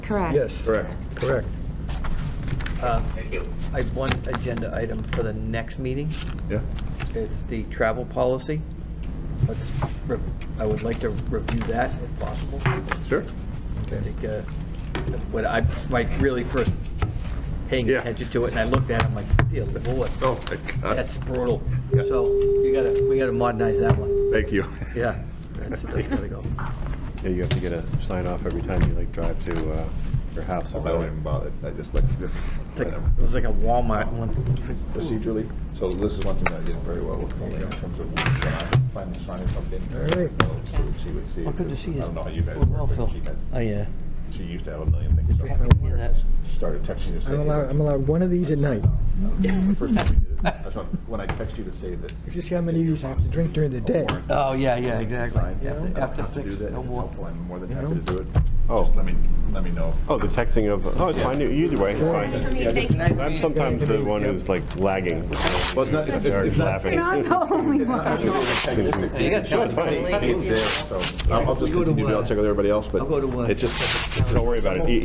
Correct. Yes. Correct. Correct. Um, I have one agenda item for the next meeting. Yeah. It's the travel policy. Let's, re- I would like to review that if possible. Sure. I think, uh, what I, my really first paying Yeah. attention to it, and I looked at it, I'm like, dear lord, Oh, my God. that's brutal. Yeah. So you gotta, we gotta modernize that one. Thank you. Yeah, that's, that's gotta go. Yeah, you have to get a sign off every time you like drive to uh, your house. Oh, I don't even bother. I just like to. It's like- It was like a Walmart one. Procedurally, so this is one thing I did very well with Colleen in terms of finally signing something. All right. She would see. Well, good to see you. I don't know how you guys. Well, well, work, but Phil. she has- Oh, yeah. She used to have a million things. We're happy to hear that. Started texting you. I'm allowed, I'm allowed one of these at night. Uh, First time we did it, I just want- when I text you to say that. Just see how many of these I have to drink during the day. Oh, yeah, yeah, exactly. Fine, After- I don't After have to do six, that. no It's more. helpful. I'm more than You happy know? to do it. Oh. Just let me, let me know. Oh, the texting of, oh, it's fine, either way, it's fine. I'm sometimes the one who's like lagging. Well, it's not, it's it's not. Laughing. Not the only It's not one. actually a technistic thing. gotta tell It's fine. everybody. It's there, so I'll I'll just We go to, continue, to- uh, I'll check with everybody else, but I'll go to, uh, it's just, Don't worry about it. E-